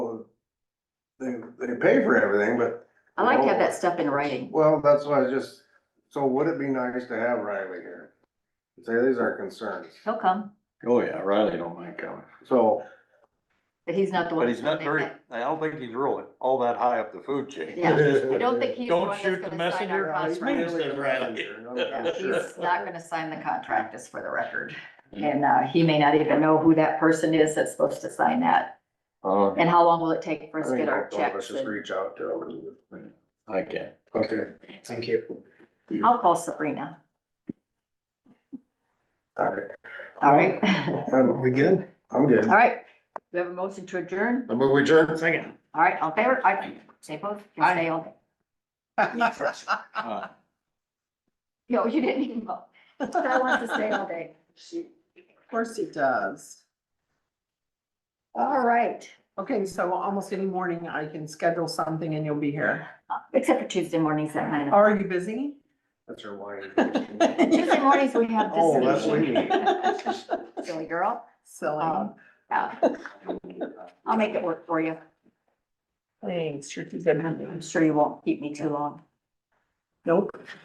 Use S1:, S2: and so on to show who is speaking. S1: they, they pay for everything, but,
S2: I like to have that stuff in writing.
S1: well, that's why I just, so would it be nice to have Riley here? Say, these are concerns,
S2: He'll come,
S3: Oh, yeah, Riley don't mind coming,
S1: so,
S2: but he's not the one.
S3: but he's not
S2: that's gonna
S3: very,
S2: make
S3: I don't think he's really all that high up the food chain.
S2: that- Yeah, I don't think he's the
S4: Don't
S2: one that's
S4: shoot the
S2: gonna sign
S4: messenger.
S2: our
S1: Yeah, he's
S4: Right.
S2: contract.
S1: really a messenger, I'm- I'm
S2: Yeah,
S1: sure.
S2: He's not gonna sign the contract, just for the record. And, uh, he may not even know who that person is that's supposed to sign that.
S3: Uh,
S2: And how long will it take for
S1: I
S2: us to
S1: think
S2: get our
S1: both of us
S2: checks?
S1: just
S2: and-
S1: reach out to him.
S3: I can't.
S1: Okay.
S4: Thank you.
S2: I'll call Sabrina,
S1: All right,
S2: all right?
S1: I'm,
S4: We good?
S1: I'm good.
S2: All right, we have a motion to adjourn,
S1: The move adjourned.
S4: Second.
S2: all right, all in favor, I, say both, you
S4: Aye.
S2: say all day.
S3: Uh,
S2: No, you didn't even vote, I want to stay all day.
S5: She, of course it does.
S2: All right,
S5: Okay, so almost any morning I can schedule something and you'll be here.
S2: except for Tuesday mornings at nine. o'clock.
S5: Are you busy?
S1: That's her wine.
S2: Tuesday mornings, we have
S1: Oh, that's
S2: this meeting,
S1: me.
S2: silly girl,
S5: Silly.
S2: Um, yeah, I'll make it work for you,
S5: Thanks, you're too good.
S2: I'm sure you won't keep me too long.
S5: Nope.